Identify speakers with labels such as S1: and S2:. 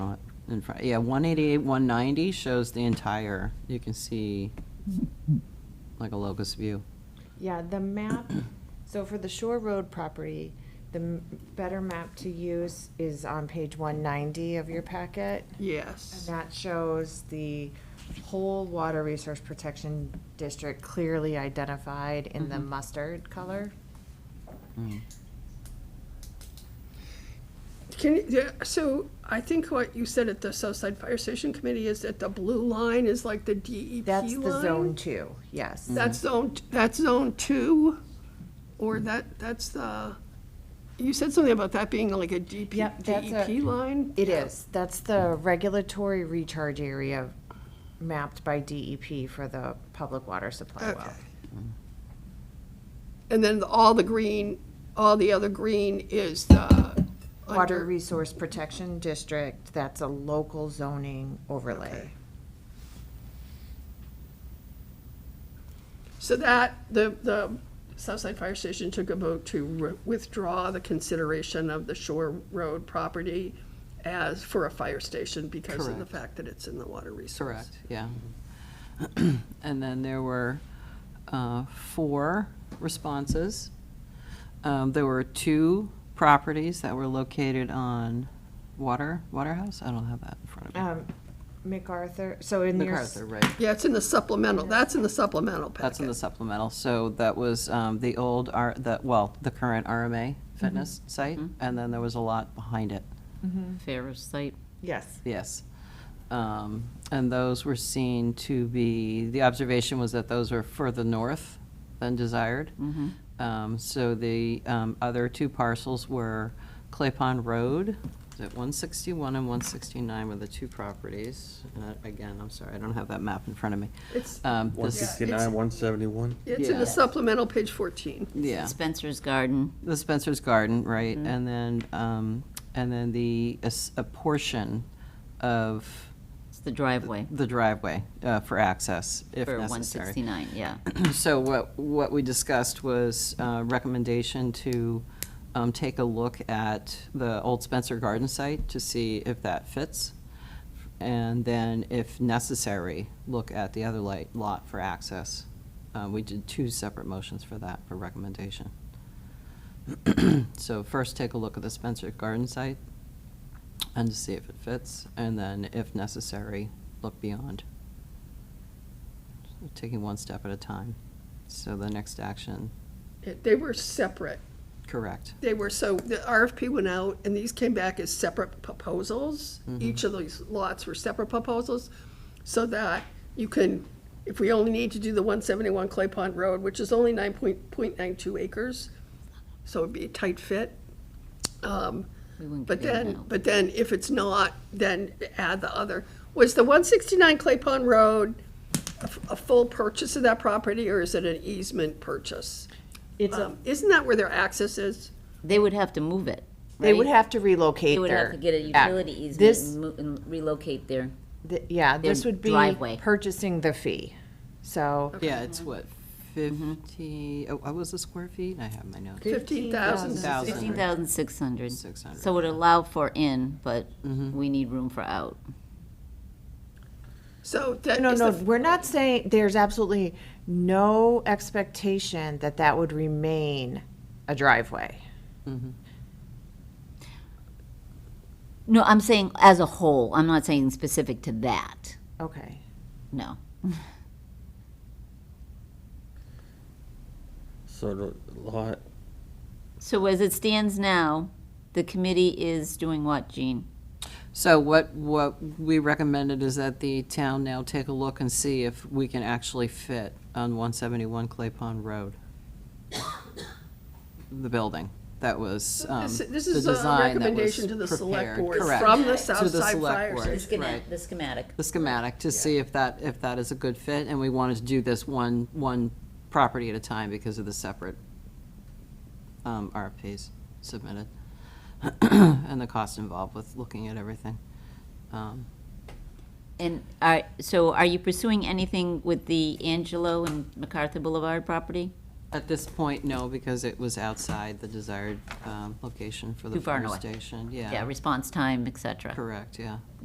S1: in front, yeah, one eighty-eight, one ninety shows the entire, you can see like a locus view.
S2: Yeah, the map, so for the Shore Road property, the m- better map to use is on page one ninety of your packet. And
S3: Yes.
S2: that shows the whole Water Resource Protection District clearly identified in the
S3: Mm-hmm.
S1: Mhm.
S2: mustard color.
S1: Mm.
S3: Can, you- yeah, so I think what you said at the Southside Fire Station Committee is that the blue line is like the DEP
S2: That's the
S3: line? Mm.
S2: zone two, yes.
S3: That's zone, that's zone two, or that, that's the, you said something about that being like a DP,
S2: Yep, that's a-
S3: DEP E line?
S2: It is, that's the regulatory recharge area mapped by DEP for the public water supply
S3: Okay.
S2: well.
S3: And then all the green, all the other green is the.
S2: Water
S3: under-
S2: Resource Protection District, that's a local zoning overlay.
S3: Okay. So that, the, the Southside Fire Station took a vote to re- withdraw the consideration of the Shore Road property as, for a fire station because of the
S1: Correct.
S3: fact that it's in the water resource.
S1: Correct, yeah. And then there were uh, four responses. Um, There were two properties that were located on Water, Waterhouse? I don't have that in front of me.
S2: Um, MacArthur, so in your, s-
S1: MacArthur, right.
S3: Yeah, it's in the supplemental, that's in the supplemental packet.
S1: That's in the supplemental, so that was um, the old, R the, well, the current RMA fitness site, and then there was a lot behind it,
S4: Ferris site.
S2: yes,
S1: yes. Um, And those were seen to be, the observation was that those were further north than desired. Um, So the um, other two parcels were Clay Pond Road, is it 161 and 169 were the two properties. And I- Again, I'm sorry, I don't have that map in front of me.
S3: It's,
S1: Um,
S5: One
S1: this-
S5: sixty-nine, one seventy-one?
S3: it's in
S1: Yeah.
S3: the supplemental, page fourteen.
S1: Yeah.
S4: Spencer's Garden.
S1: The Spencer's Garden, right, and then, um, and then the, a s- a portion of
S4: It's the driveway
S1: the driveway, uh, for access, if
S4: for
S1: necessary.
S4: 169, yeah.
S1: So what, what we discussed was, uh, recommendation to, um, take a look at the old Spencer Garden site to see if that fits. And then, if necessary, look at the other light, lot for access. Uh, we did two separate motions for that, for recommendation. So first, take a look at the Spencer Garden site and to see if it fits, and then if necessary, look beyond. So Taking one step at a time. So the next action,
S3: It- They were separate.
S1: correct,
S3: They were, so the RFP went out, and these came back as separate proposals. Each of these lots were separate proposals, so that you can, if we only need to do the 171 Clay Pond Road, which is only 9.92 acres, so it'd be a tight fit. Um,
S4: We wouldn't
S3: But
S4: get in
S3: then,
S4: now.
S3: but then if it's not, then add the other. Was the 169 Clay Pond Road a f- a full purchase of that property, or is it an easement purchase?
S2: it's a,
S3: Um, Isn't that where their access is?
S4: They would have to move it,
S2: they would
S4: right?
S2: have to relocate
S4: They would have
S2: their-
S4: to get a
S2: yeah.
S4: utility easement
S2: This-
S4: and mo- and relocate their,
S2: Th- Yeah, this
S4: their
S2: would be
S4: driveway.
S2: purchasing the fee. So
S1: yeah, it's what,
S3: Mm-hmm.
S1: 50, oh, what was the square feet? I have my notes.
S3: 15,000.
S1: 1,000.
S4: 15,600.
S1: 600.
S4: So would allow for in, but
S1: Mm-hmm.
S4: we need room for out.
S3: So that
S2: No,
S3: is
S2: no,
S3: the-
S2: we're not saying, there's absolutely no expectation that that would remain a driveway.
S4: No, I'm saying as a whole, I'm not saying specific to that,
S2: Okay.
S4: no.
S5: So the lot,
S4: So as it stands now, the committee is doing what, Jean?
S1: So what, what we recommended is that the town now take a look and see if we can actually fit on 171 Clay Pond Road, the building. That was um,
S3: this, this
S1: the
S3: is a
S1: design that was
S3: recommendation to the select
S1: prepared.
S3: board
S1: Correct.
S3: from the
S1: To
S3: Southside
S1: the select
S3: Fire
S1: board.
S3: Station.
S1: Right.
S4: the schematic.
S1: The schematic, to see if that, if that is a good fit, and we wanted to do this one, one property at a time because of the separate um, RFPs submitted, and the cost involved with looking at everything. Um,
S4: And are, so are you pursuing anything with the Angelo and MacArthur Boulevard property?
S1: At this point, no, because it was outside the desired um, location for the
S4: Too far
S1: fire
S4: north.
S1: station.
S4: Yeah, response time, et cetera.
S1: Correct, yeah.